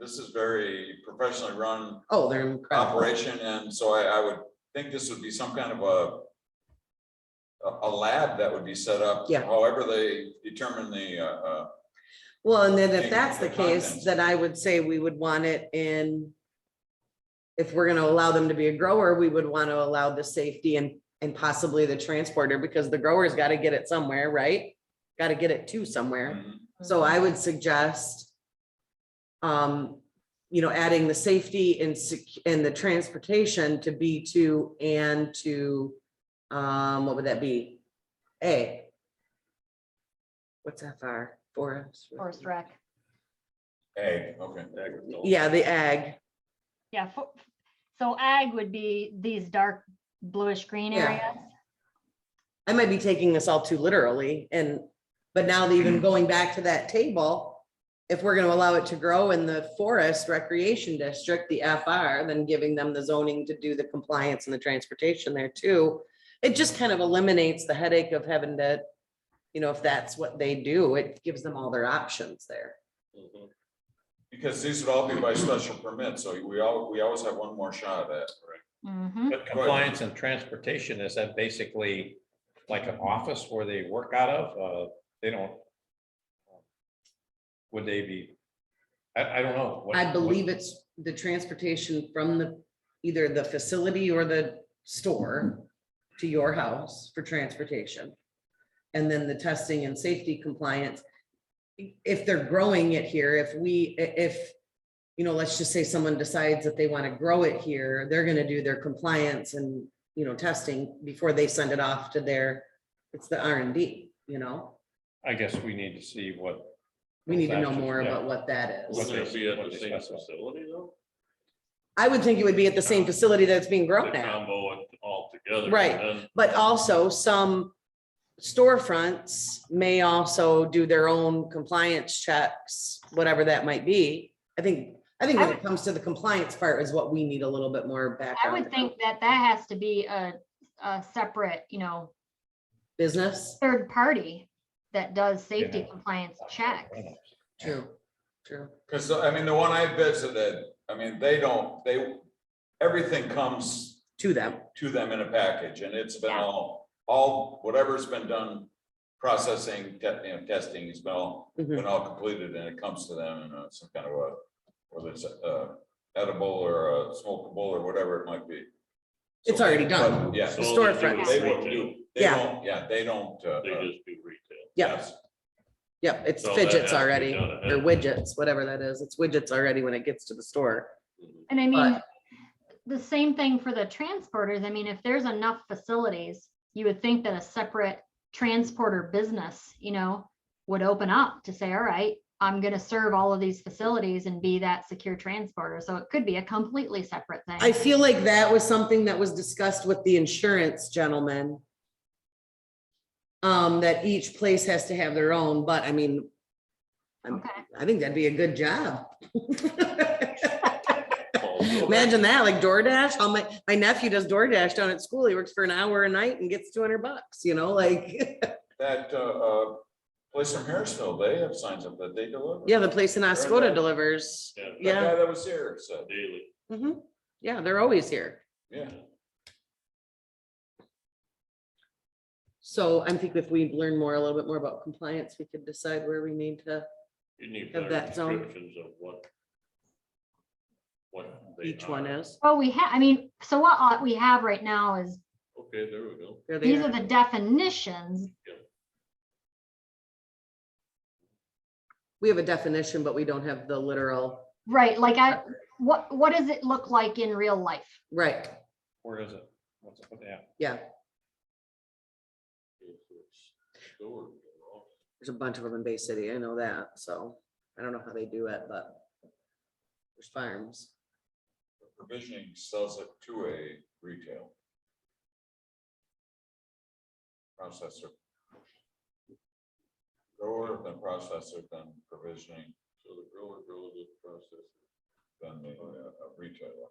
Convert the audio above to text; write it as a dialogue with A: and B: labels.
A: This is very professionally run
B: Oh, they're incredible.
A: operation, and so I, I would think this would be some kind of a a, a lab that would be set up.
B: Yeah.
A: However, they determine the, uh, uh,
B: Well, and then if
A: Thing,
B: that's the
A: the
B: case,
A: content.
B: then I would say we would want it in. If we're gonna allow them to be a grower, we would want to allow the safety and, and possibly the transporter, because the grower's gotta get it somewhere, right? Gotta get it to somewhere. So I would suggest. Um, you know, adding the safety and sec, and the transportation to B two and to, um, what would that be? A. What's FR, forest?
C: Forest rec.
A: ag, okay.
B: Yeah, the ag,
C: Yeah, fo- so ag would be these dark bluish green
B: Yeah.
C: areas.
B: I might be taking this all too literally and, but now that even going back to that table. If we're gonna allow it to grow in the forest recreation district, the FR, then giving them the zoning to do the compliance and the transportation there too. It just kind of eliminates the headache of having to, you know, if that's what they do, it gives them all their options there.
D: Mm-hmm.
A: Because these would all be by special permit, so we all, we always have one more shot at.
C: Mhm.
E: But compliance and transportation, is that basically like an office where they work out of? Uh, They don't. um, Would they be? I, I don't know. what-
B: I believe it's the transportation from the, either the facility or the store to your house for transportation. And then the testing and safety compliance. If they're growing it here, if we, i- if, you know, let's just say someone decides that they want to grow it here, they're gonna do their compliance and, you know, testing before they send it off to their, it's the R and D, you know?
E: I guess we need to see what.
B: We need to know more
E: Yeah.
B: about what that is.
E: What
D: Wouldn't
E: they-
D: it be at
E: what
D: the
E: they
D: same
E: specify.
D: facility though?
B: I would think it would be at the same facility that's being
D: The
B: grown at.
D: combo it all together.
B: Right. But also some storefronts may also do their own compliance checks, whatever that might be. I think, I think when it comes to the compliance part is what we need a little bit more
C: I
B: background.
C: would think that that has to be a, a separate, you know,
B: Business,
C: third party that does safety
E: Yeah.
C: compliance checks.
B: true, true.
A: Because, I mean, the one I visited, I mean, they don't, they, everything comes
B: To them,
A: to them in a package, and it's been
C: Yeah.
A: all, all, whatever's been done, processing, te- you know, testing has been all,
B: Mhm.
A: been all completed, and it comes to them in uh, some kind of a, whether it's uh, edible or uh, smokable or whatever it might be. So
B: It's already
A: they-
B: done.
A: but, Yeah,
B: The storefronts.
A: they won't do, they
B: Yeah.
A: don't, yeah, they don't. uh,
D: They
A: uh,
D: just do retail.
B: Yep,
A: yes.
B: yep, it's
D: So that has
B: fidgets
D: to be
B: already,
D: done ahead
B: or
D: of time.
B: widgets, whatever that is. It's widgets already when it gets to the store.
C: And I mean,
B: But-
C: the same thing for the transporters. I mean, if there's enough facilities, you would think that a separate transporter business, you know, would open up to say, all right, I'm gonna serve all of these facilities and be that secure transporter. So it could be a completely separate thing.
B: I feel like that was something that was discussed with the insurance gentleman. Um, that each place has to have their own, but I mean, I'm-
C: Okay.
B: I think that'd be a good job.
D: Also,
B: Imagine that, like DoorDash, how my, my nephew does DoorDash down at school, he works for an hour a night and gets two hundred bucks, you know, like,
A: That uh, uh, place from Harrisville, they have signs up that they deliver.
B: yeah, the place in Oscoda
A: DoorDash.
B: delivers.
D: Yeah,
A: The
B: Yeah,
A: guy that was here said,
D: Daily.
B: mhm. yeah, they're always here.
A: yeah.
B: So I think if we learn more, a little bit more about compliance, we could decide where we need to,
D: You need
B: Of
D: better
B: that zone.
D: descriptions of what. What. they
B: each one
D: are.
B: is.
C: Well, we have, I mean, so what uh, we have right now is,
D: Okay, there we go.
B: There they
C: these are the definitions.
B: We have a definition, but we don't have the literal,
C: Right, like I, what, what does it look like in real life?
B: right,
E: Where is it? What's it, what the app?
B: yeah,
D: Okay, so it's stored, you know.
B: there's a bunch of them in Bay City, I know that, so I don't know how they do it, but there's farms.
A: provisioning sells it to a retail. Processor. Grower then processor then provisioning. So the grower grows it, processor. Then the uh, uh, retailer.